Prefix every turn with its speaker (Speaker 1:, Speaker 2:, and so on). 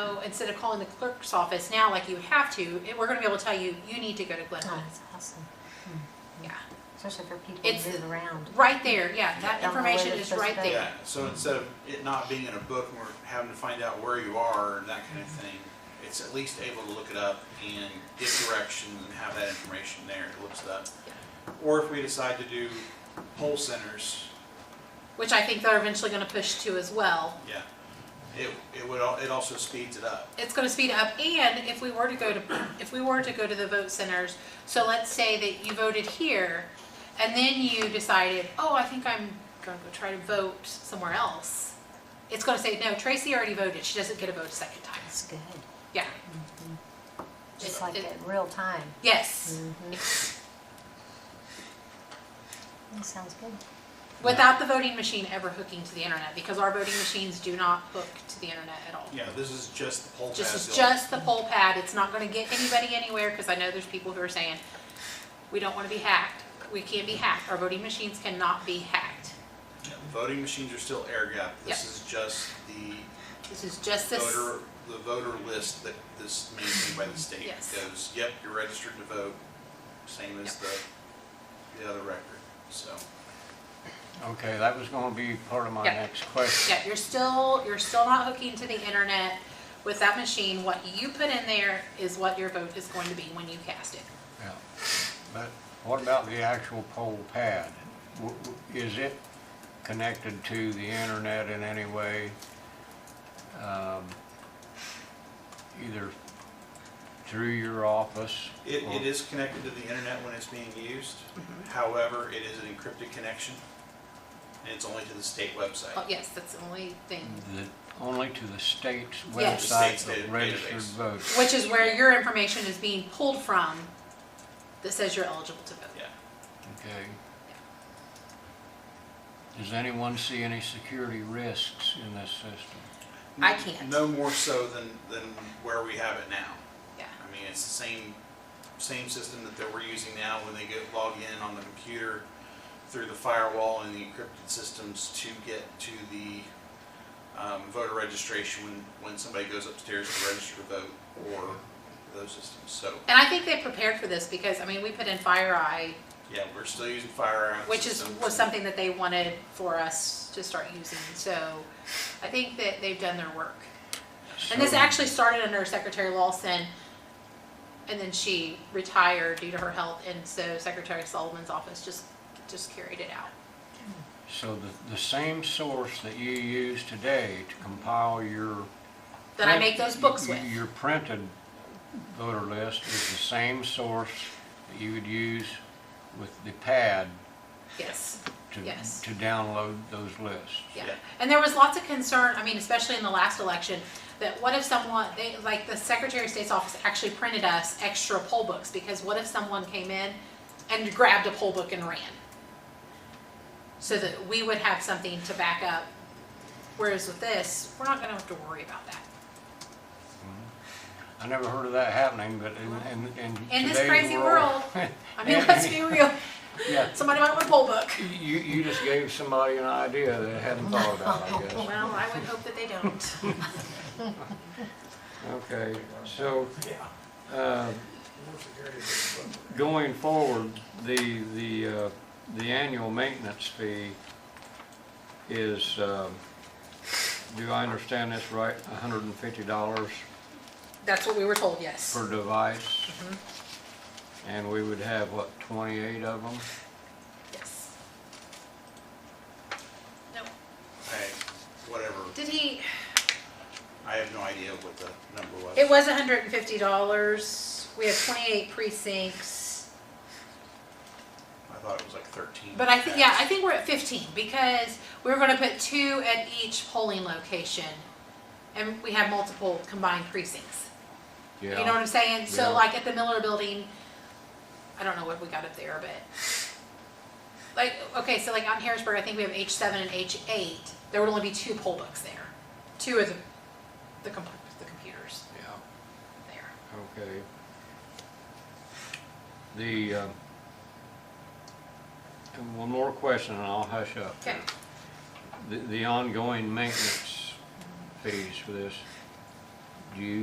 Speaker 1: So instead of calling the clerk's office now like you would have to, it- we're gonna be able to tell you, you need to go to Glen
Speaker 2: Oh,
Speaker 1: Helen.
Speaker 2: that's awesome,
Speaker 1: Yeah,
Speaker 2: especially for people
Speaker 1: It's-
Speaker 2: who move around.
Speaker 1: right there, yeah, that
Speaker 2: Don't know where
Speaker 1: information
Speaker 2: they're
Speaker 1: is
Speaker 2: supposed
Speaker 1: right
Speaker 2: to go.
Speaker 1: there.
Speaker 3: Yeah, so instead of it not being in a book and we're having to find out where you are and that kind of thing, it's at least able to look it up and give directions and have that information there, it looks it up. Or if we decide to do poll centers,
Speaker 1: Which I think they're eventually gonna push to as well.
Speaker 3: yeah, it, it would, al- it also speeds it up.
Speaker 1: It's gonna speed up, and if we were to go to, if we were to go to the vote centers, so let's say that you voted here, and then you decided, oh, I think I'm gonna go try to vote somewhere else. It's gonna say, no, Tracy already voted, she doesn't get a vote a second time.
Speaker 2: That's good.
Speaker 1: Yeah,
Speaker 2: Just
Speaker 1: It-
Speaker 2: like
Speaker 1: it-
Speaker 2: at real time. Mm-hmm.
Speaker 1: yes.
Speaker 2: That sounds good.
Speaker 1: Without the voting machine ever hooking to the internet, because our voting machines do not hook to the internet at all.
Speaker 3: Yeah, this is just the poll pad.
Speaker 1: Just, it's
Speaker 3: built.
Speaker 1: just the poll pad, it's not gonna get anybody anywhere, because I know there's people who are saying, we don't wanna be hacked, we can't be hacked, our voting machines cannot be hacked.
Speaker 3: Yeah, the Voting machines are still air gap, this is just the
Speaker 1: This is just this,
Speaker 3: voter, the voter list that this maintained by the state.
Speaker 1: Yes.
Speaker 3: Goes, yep, you're registered to vote, same as the, the other record, so.
Speaker 4: Okay, that was gonna be part of my
Speaker 1: Yeah.
Speaker 4: next question.
Speaker 1: yeah, you're still, you're still not hooking to the internet with that machine, what you put in there is what your vote is going to be when you cast it.
Speaker 4: Yeah. But what about the actual poll pad? W- w- Is it connected to the internet in any way? Um, Either through your office?
Speaker 3: It,
Speaker 4: or-
Speaker 3: it is connected to the internet when it's being used,
Speaker 1: Mm-hmm.
Speaker 3: however, it is an encrypted connection, and it's only to the state
Speaker 1: Oh,
Speaker 3: website.
Speaker 1: yes, that's the only thing,
Speaker 4: The- Only to the state's
Speaker 1: Yes.
Speaker 3: The state's
Speaker 4: website
Speaker 3: data-
Speaker 4: of
Speaker 3: database.
Speaker 4: registered voters?
Speaker 1: which is where your information is being pulled from that says you're eligible to vote.
Speaker 3: Yeah,
Speaker 4: Okay. Does anyone see any security risks in this system?
Speaker 1: I can't.
Speaker 3: No more so than, than where we have it now.
Speaker 1: Yeah.
Speaker 3: I mean, it's the same, same system that, that we're using now when they get log in on the computer through the firewall and the encrypted systems to get to the um, voter registration when, when somebody goes upstairs to register to vote or those systems. So,
Speaker 1: And I think they prepared for this because, I mean, we put in FireEye,
Speaker 3: yeah, we're still using FireEye.
Speaker 1: which is,
Speaker 3: systems.
Speaker 1: was something that they wanted for us to start using. So I think that they've done their work. And this
Speaker 4: So-
Speaker 1: actually started under Secretary Lawson, and then she retired due to her health, and so Secretary Sullivan's office just, just carried it out.
Speaker 4: So the, the same source that you use today to compile your.
Speaker 1: That I
Speaker 4: print-
Speaker 1: make those books
Speaker 4: y-
Speaker 1: with.
Speaker 4: Your printed voter list is the same source that you would use with the pad
Speaker 1: Yes,
Speaker 4: to,
Speaker 1: Yes.
Speaker 4: to download those lists.
Speaker 1: yeah.
Speaker 3: Yeah.
Speaker 1: And there was lots of concern, I mean, especially in the last election, that what if someone, they, like, the Secretary of State's office actually printed us extra poll books, because what if someone came in and grabbed a poll book and ran? So that we would have something to back up, whereas with this, we're not gonna have to worry about that.
Speaker 4: I never heard of that happening, but in, in, in
Speaker 1: In this
Speaker 4: today's
Speaker 1: crazy world, I mean,
Speaker 4: Yeah.
Speaker 1: let's be real.
Speaker 4: Yeah,
Speaker 1: Somebody might want a poll book.
Speaker 4: you, you just gave somebody an idea that hadn't thought about, I guess.
Speaker 1: Well, I would hope that they don't.
Speaker 4: Okay, so, uh, going forward, the, the, uh, the annual maintenance fee is, um, do I understand this right, hundred and fifty dollars
Speaker 1: That's what we were told, yes.
Speaker 4: per device?
Speaker 1: Mm-hmm.
Speaker 4: And we would have, what, twenty-eight of them?
Speaker 1: Yes. No,
Speaker 3: I, whatever,
Speaker 1: did he,
Speaker 3: I have no idea what the number was.
Speaker 1: it was hundred and fifty dollars. We have twenty-eight precincts.
Speaker 3: I thought it was like 13.
Speaker 1: But I think, yeah, I think we're at fifteen because we were gonna put two at each polling location. And we have multiple combined precincts. You know what I'm saying?
Speaker 4: Yeah.
Speaker 1: So like at the Miller Building, I don't know what we got up there, but like, okay, so like on Harrisburg, I think we have H seven and H eight. There would only be two poll books there, two of the, the com- the computers
Speaker 4: Yeah.
Speaker 1: there.
Speaker 4: Okay. The, uh, and one more question and I'll hush up.
Speaker 1: Okay,
Speaker 4: The, the ongoing maintenance fees for this, do you